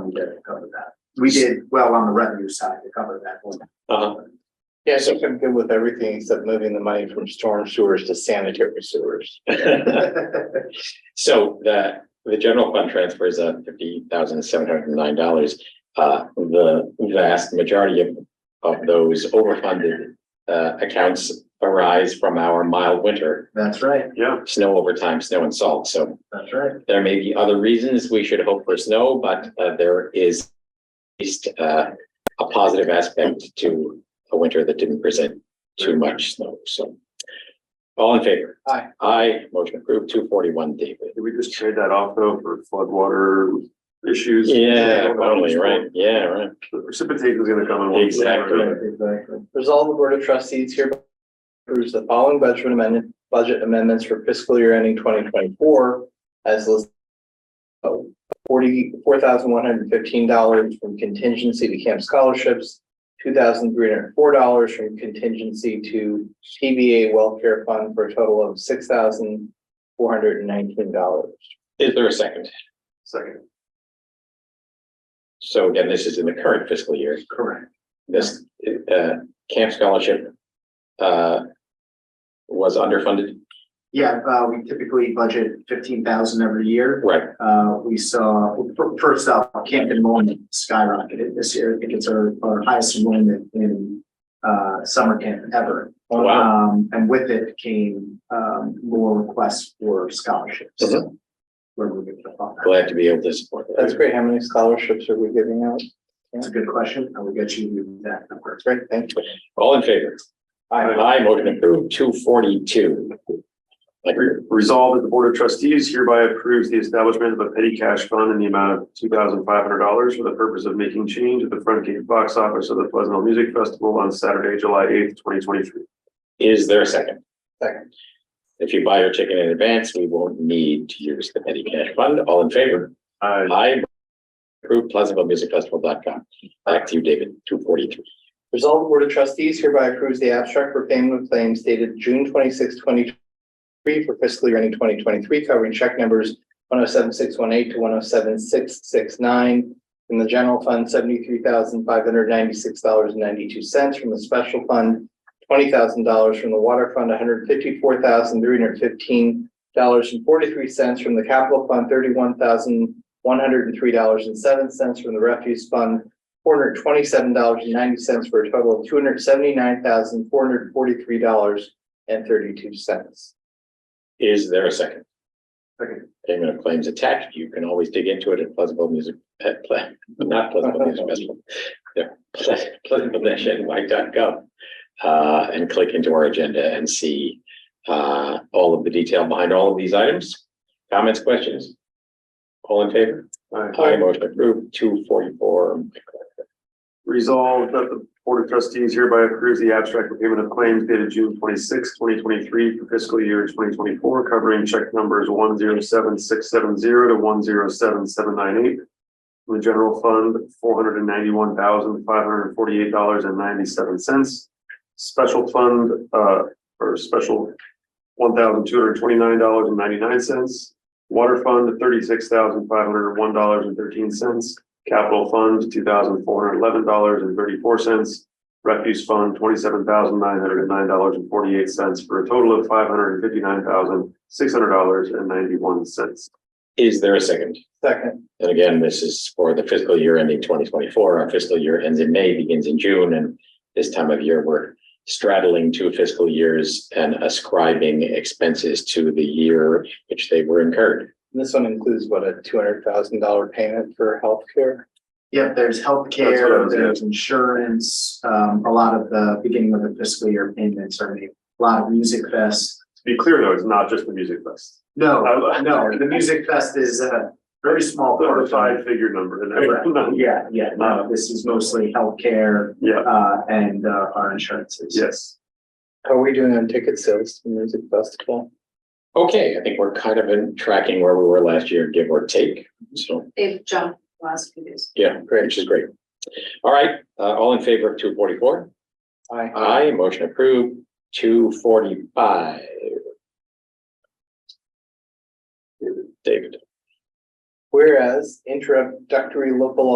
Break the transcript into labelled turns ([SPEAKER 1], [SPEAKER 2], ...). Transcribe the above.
[SPEAKER 1] we did to cover that. We did well on the revenue side to cover that one.
[SPEAKER 2] Uh-huh.
[SPEAKER 3] Yeah, I think I'm good with everything except moving the money from storm sewers to sanitary sewers.
[SPEAKER 2] So the, the general fund transfers of fifty thousand seven hundred and nine dollars. Uh, the vast majority of, of those overfunded, uh, accounts arise from our mild winter.
[SPEAKER 1] That's right,
[SPEAKER 4] Yeah,
[SPEAKER 2] Snow overtime, snow and salt. So
[SPEAKER 1] that's right.
[SPEAKER 2] there may be other reasons we should hope for snow, but, uh, there is at least, uh, a positive aspect to a winter that didn't present too much snow. So all in favor?
[SPEAKER 3] Aye.
[SPEAKER 2] Aye, motion approved, two forty-one, David.
[SPEAKER 4] did we just trade that off though for floodwater issues?
[SPEAKER 2] Yeah, totally, right, yeah, right.
[SPEAKER 4] The Precipitation is gonna come in. one way or
[SPEAKER 2] Exactly.
[SPEAKER 4] another.
[SPEAKER 1] Exactly.
[SPEAKER 3] Resolve the Board of Trustees hereby approves the following budget amendment, budget amendments for fiscal year ending twenty twenty-four as listed. Forty-four thousand one hundred fifteen dollars from contingency to camp scholarships, two thousand three hundred four dollars from contingency to TBA welfare fund for a total of six thousand four hundred and nineteen dollars.
[SPEAKER 2] Is there a second?
[SPEAKER 4] Second,
[SPEAKER 2] So again, this is in the current fiscal year,
[SPEAKER 1] Correct.
[SPEAKER 2] this, uh, camp scholarship, uh, was underfunded,
[SPEAKER 1] Yeah, uh, we typically budget fifteen thousand every year.
[SPEAKER 2] right?
[SPEAKER 1] Uh, we saw, fir- first off, camp enrollment skyrocketed this year. I think it's our, our highest enrollment in, uh, summer camp ever.
[SPEAKER 4] Oh,
[SPEAKER 2] Wow,
[SPEAKER 1] Um, and with it came, um, more requests for scholarships.
[SPEAKER 4] Mm-hmm.
[SPEAKER 2] Mhm.
[SPEAKER 1] Where we get the fund.
[SPEAKER 2] glad to be able to support that.
[SPEAKER 3] That's great. How many scholarships are we giving out?
[SPEAKER 1] That's a good question. I will get you that number.
[SPEAKER 3] Great, thank you.
[SPEAKER 2] All in favor?
[SPEAKER 3] Aye.
[SPEAKER 2] Aye, motion approved, two forty-two. Like,
[SPEAKER 4] Re- resolve that the Board of Trustees hereby approves the establishment of a petty cash fund in the amount of two thousand five hundred dollars for the purpose of making change at the front gate box office of the Pleasantville Music Festival on Saturday, July eighth, twenty twenty-three.
[SPEAKER 2] is there a second?
[SPEAKER 3] Second.
[SPEAKER 2] If you buy your ticket in advance, we won't need to use the petty cash fund, all in favor?
[SPEAKER 4] I
[SPEAKER 2] Aye. Approved, pleasantvillemusicfestival.com. Back to you, David, two forty-three.
[SPEAKER 3] Resolve the Board of Trustees hereby approves the abstract for payment of claims dated June 26, 2023 for fiscal year ending twenty twenty-three, covering check numbers one oh seven six one eight to one oh seven six six nine. From the general fund, seventy-three thousand five hundred ninety-six dollars and ninety-two cents. From the special fund, twenty thousand dollars. From the water fund, one hundred fifty-four thousand three hundred fifteen dollars and forty-three cents. From the capital fund, thirty-one thousand one hundred and three dollars and seven cents. From the refuse fund, four hundred twenty-seven dollars and ninety cents for a total of two hundred seventy-nine thousand, four hundred forty-three dollars and thirty-two cents.
[SPEAKER 2] Is there a second?
[SPEAKER 4] Second.
[SPEAKER 2] Payment of claims attached. You can always dig into it at Pleasantville Music, at Ple, not Pleasantville Music Festival. Yeah, pleasantville-ny.gov. Uh, and click into our agenda and see, uh, all of the detail behind all of these items. Comments, questions? All in favor? I motion approved, two forty-four.
[SPEAKER 4] Resolved that the Board of Trustees hereby approves the abstract for payment of claims dated June 26, twenty twenty-three for fiscal year twenty twenty-four, covering check numbers one zero seven six seven zero to one zero seven seven nine eight. From the general fund, four hundred and ninety-one thousand, five hundred and forty-eight dollars and ninety-seven cents. Special fund, uh, or special, one thousand, two hundred and twenty-nine dollars and ninety-nine cents. Water fund, thirty-six thousand, five hundred and one dollars and thirteen cents. Capital Fund, two thousand four hundred eleven dollars and thirty-four cents. Refuse Fund, twenty-seven thousand nine hundred and nine dollars and forty-eight cents for a total of five hundred and fifty-nine thousand six hundred dollars and ninety-one cents.
[SPEAKER 2] Is there a second?
[SPEAKER 3] Second,
[SPEAKER 2] And again, this is for the fiscal year ending twenty twenty-four. Our fiscal year ends in May, begins in June, and this time of year, we're straddling two fiscal years and ascribing expenses to the year in which they were incurred.
[SPEAKER 3] this one includes what, a two hundred thousand dollar payment for healthcare?
[SPEAKER 1] Yep, there's
[SPEAKER 4] That's what I
[SPEAKER 1] healthcare,
[SPEAKER 4] was
[SPEAKER 1] there's insurance, um, a lot of the beginning of the fiscal year payments are made, a lot of music fest.
[SPEAKER 4] To be clear, though, it's not just the music fest.
[SPEAKER 1] No,
[SPEAKER 4] I-
[SPEAKER 1] no, the music fest is a very small part
[SPEAKER 4] The
[SPEAKER 1] of it.
[SPEAKER 4] five-figure number. and
[SPEAKER 1] Correct.
[SPEAKER 4] everything.
[SPEAKER 1] Yeah, yeah, no, this is mostly healthcare,
[SPEAKER 4] Yeah,
[SPEAKER 1] uh, and, uh, our insurances.
[SPEAKER 4] yes.
[SPEAKER 3] How are we doing on ticket sales to music festival?
[SPEAKER 2] Okay, I think we're kind of in tracking where we were last year, give or take. So,
[SPEAKER 5] They've jumped the last few days.
[SPEAKER 2] yeah, great, which is great. All right, uh, all in favor of two forty-four?
[SPEAKER 3] Aye.
[SPEAKER 2] Aye, motion approved, two forty-five. David.
[SPEAKER 3] Whereas introductory local